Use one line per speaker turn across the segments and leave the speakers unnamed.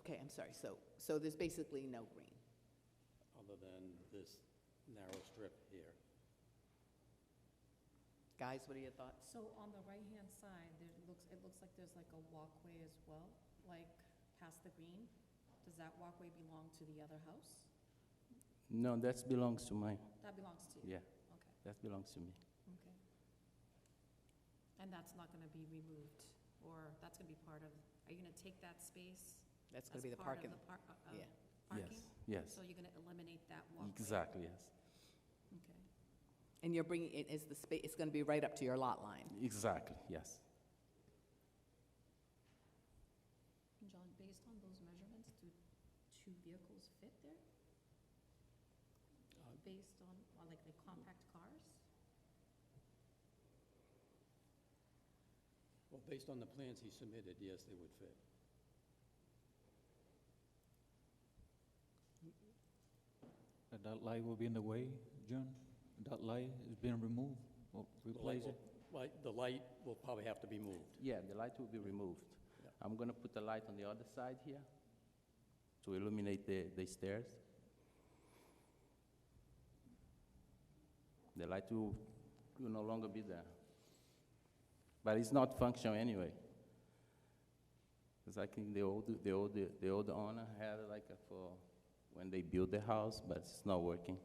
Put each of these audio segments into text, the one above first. Okay, I'm sorry, so, so there's basically no green.
other than this narrow strip here.
Guys, what are your thoughts?
So on the right-hand side, there looks, it looks like there's like a walkway as well, like past the green. Does that walkway belong to the other house?
No, that belongs to mine.
That belongs to you?
Yeah,
Okay,
that belongs to me.
okay. And that's not gonna be removed, or that's gonna be part of, are you gonna take that space?
That's
as
going to be the
part
parking.
of the par- uh, uh,
yeah.
Parking?
Yes,
So you're gonna eliminate that
yes,
walkway?
exactly, yes,
Okay.
And you're bringing, it is the space, it's going to be right up to your lot line.
exactly, yes.
John, based on those measurements, do two vehicles fit there?
Uh,
Based on, or like the compact cars?
Well, based on the plans he submitted, yes, they would fit.
Uh, That light will be in the way, John? That light is being removed Oh, or
The light
replaced?
will- Light, the light will probably have to be moved.
Yeah, the light will be removed.
Yeah.
I'm gonna put the light on the other side here to illuminate the, the stairs. The light will, will no longer be there. But it's not functional anyway. It's like in the old, the old, the old owner had it like a for, when they built the house, but it's not working.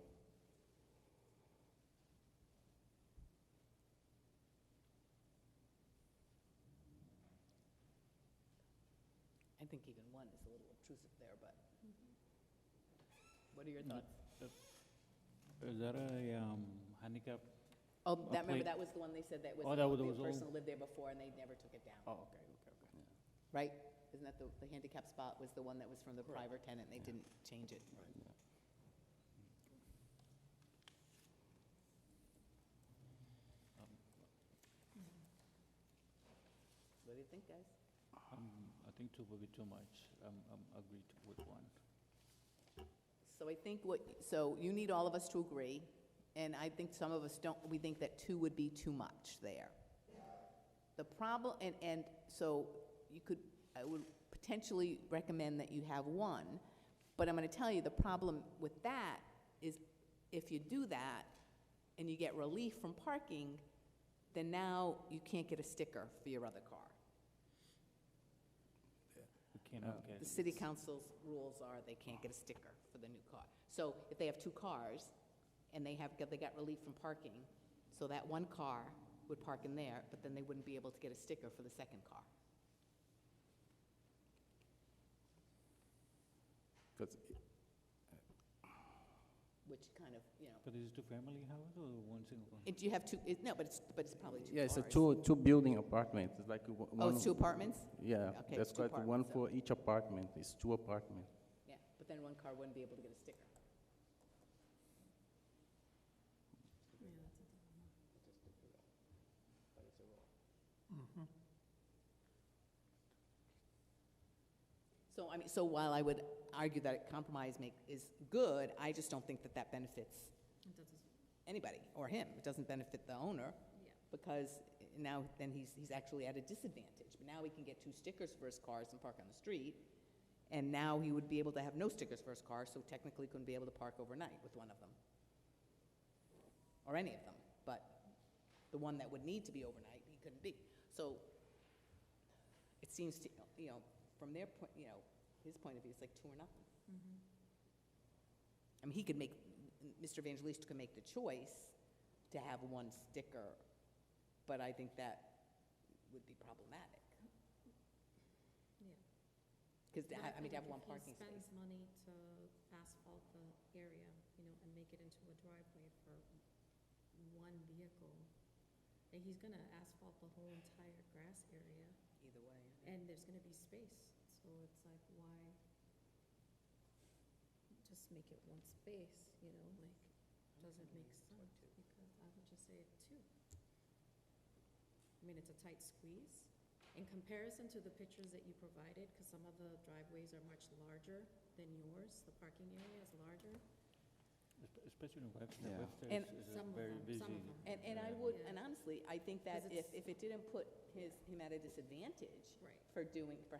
I think even one is a little obtrusive there, but what are your
Mm-hmm.
thoughts?
Is that a um, handicap?
Oh,
a
that, remember,
plate.
that was the one they said that was,
Oh, that was- that
the
was old.
person lived there before and they never took it down,
Oh, okay, okay, okay.
right? Isn't that the, the handicap spot was the one that was from the private tenant, and they didn't change it? What do you think, guys?
Um, I think two will be too much. I'm, I'm agreed with one.
So I think what, so you need all of us to agree, and I think some of us don't, we think that two would be too much there. The problem, and, and so you could, I would potentially recommend that you have one, but I'm gonna tell you, the problem with that is if you do that and you get relief from parking, then now you can't get a sticker for your other car.
We cannot get.
The city council's rules are they can't get a sticker for the new car. So if they have two cars and they have, they got relief from parking, so that one car would park in there, but then they wouldn't be able to get a sticker for the second car.
Because
Which kind of, you know,
But is it two-family house or one single? one?
and you have two, it, no, but it's, but it's probably two
Yeah, it's a
cars.
two, two building apartment, it's like a one.
Oh, it's two apartments?
Yeah,
Okay,
that's
it's two
quite, one
apartments, so-
for each apartment, it's two apartment.
Yeah, but then one car wouldn't be able to get a sticker. So, I mean, so while I would argue that a compromise make, is good, I just don't think that that benefits
It doesn't,
anybody or him. It doesn't benefit the owner
yeah.
because now then he's, he's actually at a disadvantage. But now he can get two stickers for his cars and park on the street. And now he would be able to have no stickers for his car, so technically couldn't be able to park overnight with one of them. Or any of them, but the one that would need to be overnight, he couldn't be. So it seems to, you know, from their point, you know, his point of view, it's like two or nothing. I mean, he could make, Mr. Evangelista could make the choice to have one sticker, but I think that would be problematic.
Yeah.
Because,
What
I mean,
if
to have one
he
parking space.
Spends money to asphalt the area, you know, and make it into a driveway for one vehicle. Like, he's gonna asphalt the whole entire grass area,
Either way.
and there's gonna be space, so it's like, why? Just make it one space, you know, like, doesn't make sense, because I would just say two. I mean, it's a tight squeeze. In comparison to the pictures that you provided, because some of the driveways are much larger than yours, the parking area is larger.
Espe- Especially in Webster,
Yeah.
Webster
And-
is- is
Some
a
of
very
them,
busy.
some of them.
And, and I
area.
would,
Yeah.
and honestly, I think that
'Cause
if,
it's-
if it didn't put his, him at a disadvantage
Right.
for doing, for